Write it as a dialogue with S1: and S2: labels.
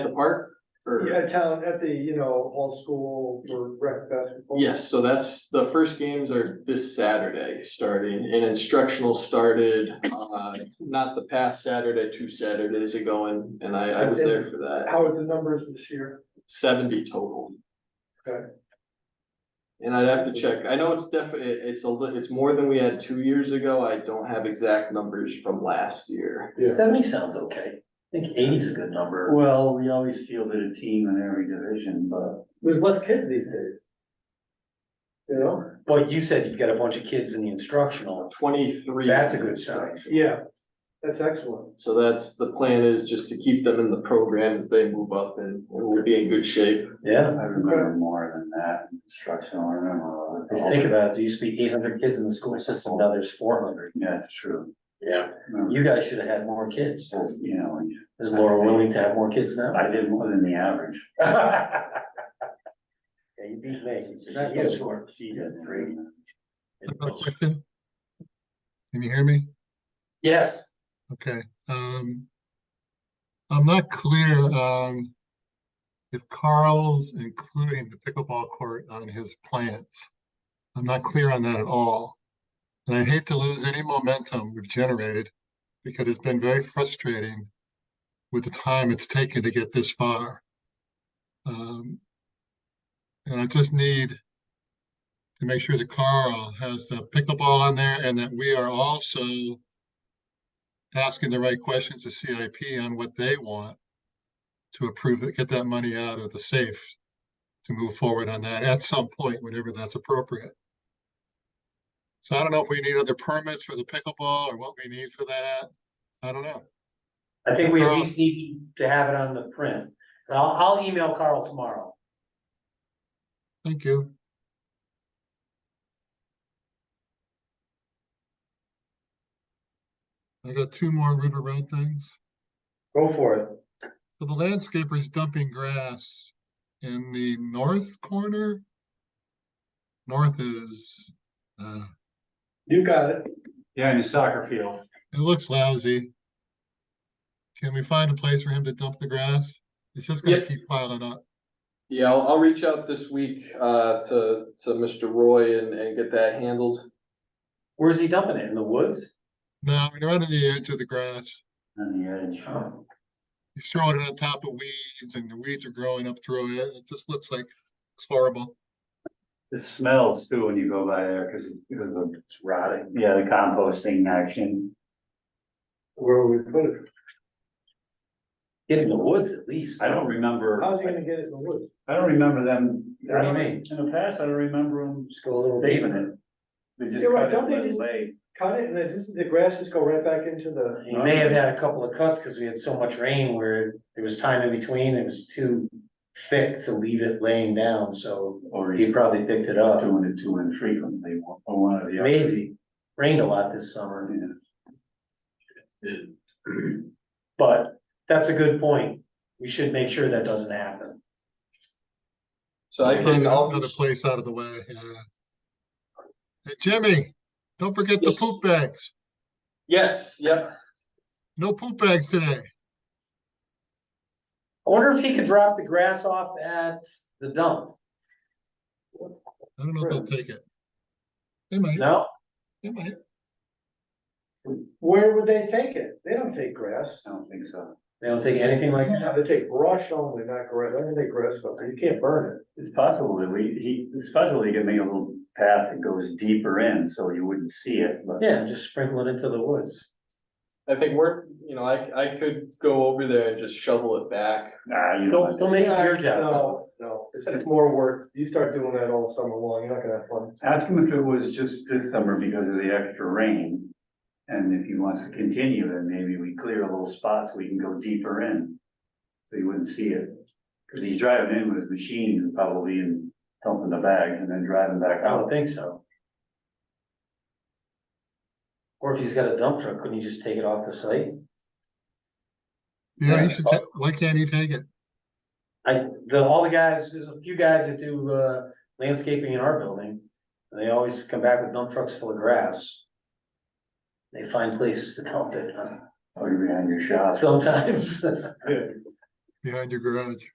S1: the park? Or-
S2: Yeah, town, at the, you know, whole school for rec basketball.
S1: Yes, so that's, the first games are this Saturday starting, and instructional started, uh, not the past Saturday, two Saturdays ago, and, and I, I was there for that.
S2: How are the numbers this year?
S1: Seventy total.
S2: Okay.
S1: And I'd have to check, I know it's definitely, it's a, li- it's more than we had two years ago, I don't have exact numbers from last year.
S2: Yeah.
S3: Seventy sounds okay. I think eighty's a good number.
S4: Well, we always fielded a team in every division, but
S2: There's less kids these days. You know,
S3: But you said you've got a bunch of kids in the instructional.
S1: Twenty-three.
S3: That's a good sign.
S2: yeah, that's excellent.
S1: So that's, the plan is just to keep them in the program as they move up and we'll be in good shape.
S3: Yeah,
S4: I remember more than that in instructional, I remember.
S3: just think about it. There used to be eight hundred kids in the school system. Now there's four hundred.
S4: Yeah, it's true.
S3: Yeah.
S4: Remember,
S3: You guys should have had more kids.
S4: You know,
S3: Is Laura willing to have more kids now?
S4: I did more than the average.
S3: Yeah, you beat me. Not you.
S4: She did three.
S5: I have a question. Can you hear me?
S3: Yes,
S5: Okay, um. I'm not clear, um. If Carl's including the pickleball court on his plans. I'm not clear on that at all. And I hate to lose any momentum we've generated because it's been very frustrating. With the time it's taken to get this far. Um. And I just need. To make sure that Carl has the pickleball on there and that we are also asking the right questions to CIP on what they want to approve that, get that money out of the safe to move forward on that at some point, whenever that's appropriate. So I don't know if we need other permits for the pickleball or what we need for that. I don't know.
S3: I think we at least need to have it on the print. I'll, I'll email Carl tomorrow.
S5: Thank you. I got two more River Road things.
S3: Go for it.
S5: So the landscaper's dumping grass in the north corner. North is, uh,
S2: You got it.
S4: Yeah, in the soccer field.
S5: it looks lousy. Can we find a place for him to dump the grass? It's just gonna
S1: Yep.
S5: keep piling up.
S1: Yeah, I'll, I'll reach out this week, uh, to, to Mr. Roy and, and get that handled.
S3: Where's he dumping it? In the woods?
S5: No, we're not on the edge of the grass.
S4: On the edge.
S5: He's throwing it on top of weeds and the weeds are growing up through it. It just looks like, it's horrible.
S4: It smells too when you go by there because it's rotting. Yeah, the composting action.
S2: Where would we put it?
S3: Get in the woods at least.
S4: I don't remember.
S2: How's he gonna get it in the woods?
S4: I don't remember them.
S3: What do you mean?
S4: In the past, I don't remember them
S3: Just go a little deeper.
S4: paving it. They just
S2: You're right,
S4: cut it
S2: don't they
S4: and let it
S2: just-
S4: lay.
S2: Cut it and then just, the grass just go right back into the,
S3: He may have had a couple of cuts because we had so much rain where there was time in between. It was too thick to leave it laying down, so
S4: Or
S3: he
S4: he's
S3: probably picked it up.
S4: doing it too infrequently, one- or one of the other.
S3: Maybe. Rained a lot this summer,
S4: Yeah.
S3: but that's a good point. We should make sure that doesn't happen.
S1: So I
S5: Find
S1: can, I'll,
S5: Another place out of the way, yeah. Hey, Jimmy, don't forget the
S1: Yes.
S5: poop bags.
S1: yes, yep,
S5: No poop bags today.
S3: I wonder if he could drop the grass off at the dump.
S5: I don't know if they'll take it. They might,
S3: No?
S5: they might.
S2: where would they take it? They don't take grass.
S4: I don't think so.
S3: They don't take anything like that?
S2: No, They take brush only, not grass. I mean, they grass, up there. you can't burn it.
S4: It's possible that we, he, it's possible he could make a little path that goes deeper in, so you wouldn't see it, but.
S3: Yeah, just sprinkle it into the woods.
S1: I think we're, you know, I, I could go over there and just shovel it back.
S4: Nah, ah, you
S3: Don't,
S4: don't.
S3: don't make it your job.
S2: No, no, it's just more work. You start doing that all summer long, you're not gonna have fun.
S4: Ask him if it was just this summer because of the extra rain. And if he wants to continue, then maybe we clear a little spot so we can go deeper in. So you wouldn't see it. Cause he's driving in with his machine probably and dumping the bags and then driving back
S3: I don't
S4: out.
S3: think so. Or if he's got a dump truck, couldn't he just take it off the site?
S5: Yeah,
S4: Yeah.
S5: you should, ta- why can't he take it?
S3: I, the, all the guys, there's a few guys that do, uh, landscaping in our building. and They always come back with dump trucks full of grass. They find places to dump it
S4: Or you're behind your shop.
S3: sometimes.
S5: behind your garage.